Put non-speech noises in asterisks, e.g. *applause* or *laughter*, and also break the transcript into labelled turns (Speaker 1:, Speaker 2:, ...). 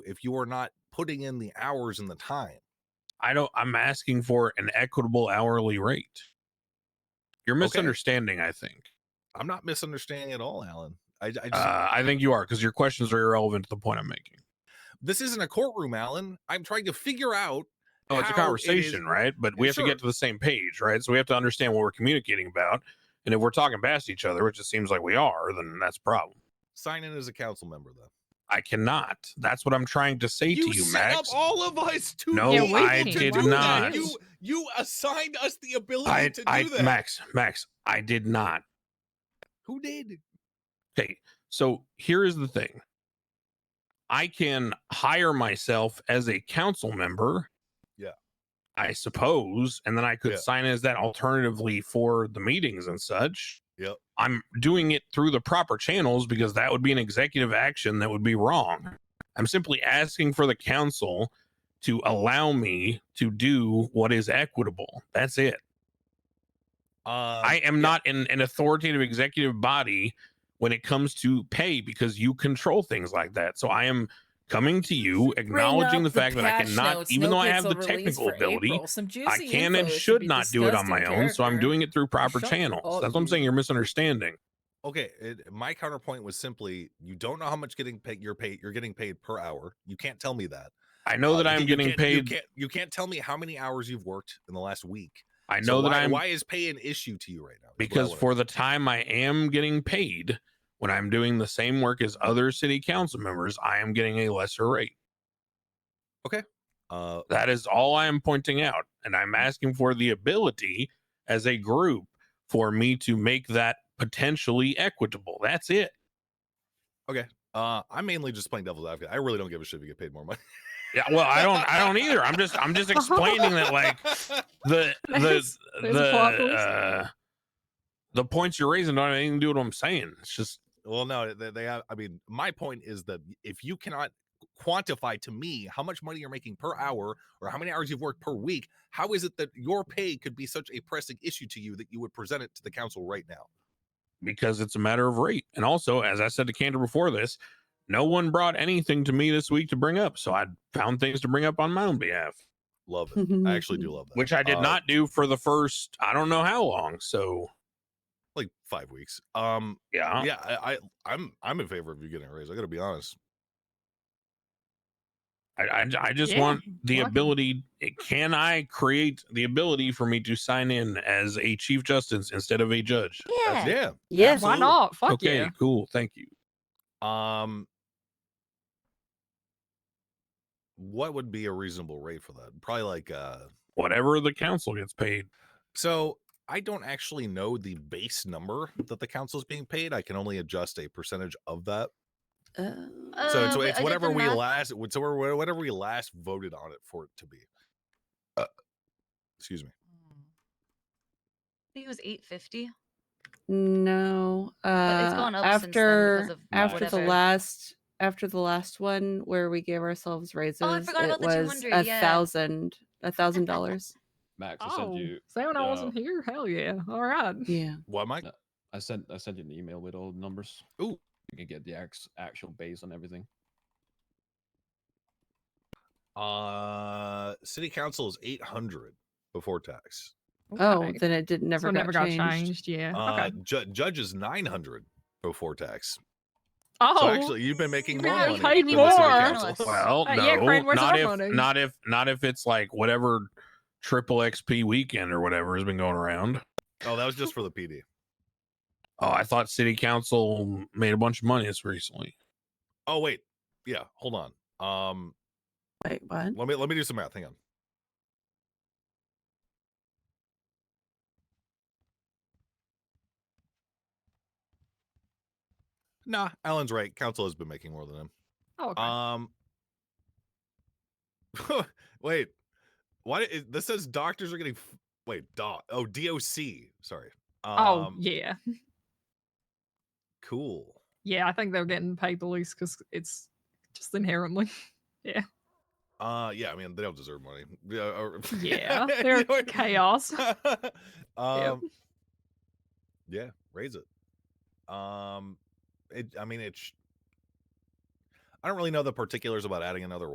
Speaker 1: if you are not putting in the hours and the time.
Speaker 2: I don't. I'm asking for an equitable hourly rate. You're
Speaker 1: Okay.
Speaker 2: misunderstanding. I think.
Speaker 1: I'm not misunderstanding at all, Alan. I, I just,
Speaker 2: Uh, I think you are because your questions are irrelevant to the point I'm making.
Speaker 1: this isn't a courtroom, Alan. I'm trying to figure out.
Speaker 2: Oh, it's a
Speaker 1: how it is-
Speaker 2: conversation, right? But we have to
Speaker 1: Sure.
Speaker 2: get to the same page, right? So we have to understand what we're communicating about. And if we're talking past each other, which it seems like we are, then that's a problem.
Speaker 1: Sign in as a council member, though.
Speaker 2: I cannot. That's what I'm trying to say to you,
Speaker 1: set
Speaker 2: Max.
Speaker 1: up all of us to
Speaker 2: No,
Speaker 1: be
Speaker 3: Yeah,
Speaker 1: able
Speaker 3: I
Speaker 1: to
Speaker 3: did
Speaker 1: do that.
Speaker 3: not.
Speaker 1: You, you assigned us the ability
Speaker 2: I,
Speaker 1: to do
Speaker 2: I,
Speaker 1: that.
Speaker 2: Max, Max, I did not.
Speaker 1: Who did?
Speaker 2: Okay, so here is the thing. I can hire myself as a council member.
Speaker 1: Yeah.
Speaker 2: I suppose, and then I could
Speaker 1: Yeah.
Speaker 2: sign as that alternatively for the meetings and such.
Speaker 1: Yep.
Speaker 2: I'm doing it through the proper channels because that would be an executive action that would be wrong. I'm simply asking for the council to allow me to do what is equitable. That's it.
Speaker 1: Uh,
Speaker 2: I am not in an authoritative executive body when it comes to pay because you control things like that. So I am coming to you acknowledging the fact that I cannot, even though I have the technical ability, I can and should not do it on my own. So I'm doing it through proper
Speaker 3: Shut
Speaker 2: channels.
Speaker 3: up,
Speaker 2: That's what I'm
Speaker 3: you-
Speaker 2: saying. You're misunderstanding.
Speaker 1: okay. It, my counterpoint was simply: you don't know how much getting paid. You're paid. You're getting paid per hour. You can't tell me that.
Speaker 2: I know
Speaker 1: Uh,
Speaker 2: that
Speaker 1: you
Speaker 2: I am
Speaker 1: can't- you
Speaker 2: getting
Speaker 1: can't- you
Speaker 2: paid.
Speaker 1: can't- you can't tell me how many hours you've worked in the last week.
Speaker 2: I
Speaker 1: So
Speaker 2: know that
Speaker 1: why,
Speaker 2: I'm
Speaker 1: Why is pay an issue to you right now? is what I
Speaker 2: because
Speaker 1: wanna-
Speaker 2: for the time I am getting paid when I'm doing the same work as other city council members, I am getting a lesser rate.
Speaker 1: uh,
Speaker 2: That is all I am pointing out. And I'm asking for the ability as a group for me to make that potentially equitable. That's it.
Speaker 1: uh, I'm mainly just playing devil's advocate. I really don't give a shit if you get paid more money.
Speaker 2: Yeah, well, I don't I don't either. I'm just I'm just explaining that like the the
Speaker 3: There's- there's
Speaker 2: the
Speaker 3: waffles.
Speaker 2: uh, the points you're raising don't have anything to do with what I'm saying. It's just
Speaker 1: *laughs* Well, no, they, they have. I mean, my point is that if you cannot quantify to me how much money you're making per hour or how many hours you've worked per week, how is it that your pay could be such a pressing issue to you that you would present it to the council right now?
Speaker 2: because it's a matter of rate. And also, as I said to Cantor before this, no one brought anything to me this week to bring up. So I found things to bring up on my own behalf.
Speaker 1: Love it. *laughs* I actually do love that.
Speaker 2: which I did
Speaker 1: Uh,
Speaker 2: not do for the first I don't know how long. So
Speaker 1: like five weeks. Um,
Speaker 2: yeah,
Speaker 1: yeah, I, I, I'm, I'm in favor of you getting a raise. I got to be honest.
Speaker 2: I, I, I just
Speaker 3: Yeah,
Speaker 2: want the
Speaker 3: welcome.
Speaker 2: ability. eh, Can I create the ability for me to sign in as a chief justice instead of a judge?
Speaker 1: That's-
Speaker 3: Yeah.
Speaker 1: yeah.
Speaker 3: Yeah. Why
Speaker 1: absolutely.
Speaker 3: not? Fuck
Speaker 2: okay,
Speaker 3: yeah.
Speaker 2: cool. Thank you.
Speaker 1: Um, what would be a reasonable rate for that? Probably like uh.
Speaker 2: Whatever the council gets paid.
Speaker 1: So I don't actually know the base number that the council is being paid. I can only adjust a percentage of that.
Speaker 3: Uh,
Speaker 1: So
Speaker 4: Uh,
Speaker 1: it's,
Speaker 4: but I
Speaker 1: it's
Speaker 4: did
Speaker 1: whatever
Speaker 4: the
Speaker 1: we
Speaker 4: math.
Speaker 1: last, it's whatever whatever we last voted on it for it to be. Uh, excuse me.
Speaker 4: I think it was 850.
Speaker 5: No. Uh,
Speaker 4: it's gone up since then because
Speaker 5: after
Speaker 4: of
Speaker 5: after
Speaker 4: whatever.
Speaker 5: the last after the last one where we gave ourselves raises,
Speaker 4: Oh, forgot
Speaker 5: it
Speaker 4: about the
Speaker 5: was
Speaker 4: 200,
Speaker 5: a
Speaker 4: yeah.
Speaker 5: thousand a thousand
Speaker 4: *laughs*
Speaker 5: dollars.
Speaker 6: Max, I
Speaker 3: Oh,
Speaker 6: sent you.
Speaker 3: Sam, I
Speaker 6: uh,
Speaker 3: wasn't here. Hell yeah. All right.
Speaker 5: Yeah.
Speaker 1: Why, Mike?
Speaker 6: I sent I sent you an email with all the numbers.
Speaker 1: Ooh.
Speaker 6: You can get the ax- actual base on everything.
Speaker 1: Uh, city council is eight hundred before tax.
Speaker 5: Oh,
Speaker 3: Okay.
Speaker 5: then it did never
Speaker 3: so
Speaker 5: got
Speaker 3: never got changed.
Speaker 5: changed.
Speaker 4: Eh,
Speaker 3: Yeah.
Speaker 1: Uh,
Speaker 3: okay.
Speaker 1: ju- judge is nine hundred before tax.
Speaker 3: Oh,
Speaker 1: So actually, you've been making more
Speaker 3: now
Speaker 1: money.
Speaker 3: paid
Speaker 1: than the city
Speaker 3: more.
Speaker 1: council.
Speaker 2: Well,
Speaker 3: Uh,
Speaker 2: no,
Speaker 3: yeah, Crane, where's
Speaker 2: not
Speaker 3: our
Speaker 2: if
Speaker 3: money?
Speaker 2: not if not if it's like whatever triple XP weekend or whatever has been going around.
Speaker 1: Oh, that was just for the PD.
Speaker 2: Oh, I thought city council made a bunch of money this recently.
Speaker 1: Oh wait, yeah. Hold on. Um,
Speaker 5: Wait, what?
Speaker 1: let me let me do some math. Hang on. Nah, Alan's right. Council has been making more than him.
Speaker 3: oh, okay.
Speaker 1: Um, *laughs* wait, why is, this says doctors are getting f- wait doc oh DOC sorry. Um,
Speaker 3: oh yeah,
Speaker 1: cool.
Speaker 3: yeah. I think they're getting paid the least because it's just inherently.
Speaker 1: *laughs*
Speaker 3: *laughs*
Speaker 1: Uh, yeah, I mean they don't deserve money. Yeah, or- *laughs*
Speaker 3: Yeah,
Speaker 1: you *laughs*
Speaker 3: they're
Speaker 1: know what-
Speaker 3: chaos.
Speaker 1: *laughs* um, yeah, raise it. Um, it. I mean, it's. I don't really know the particulars about adding another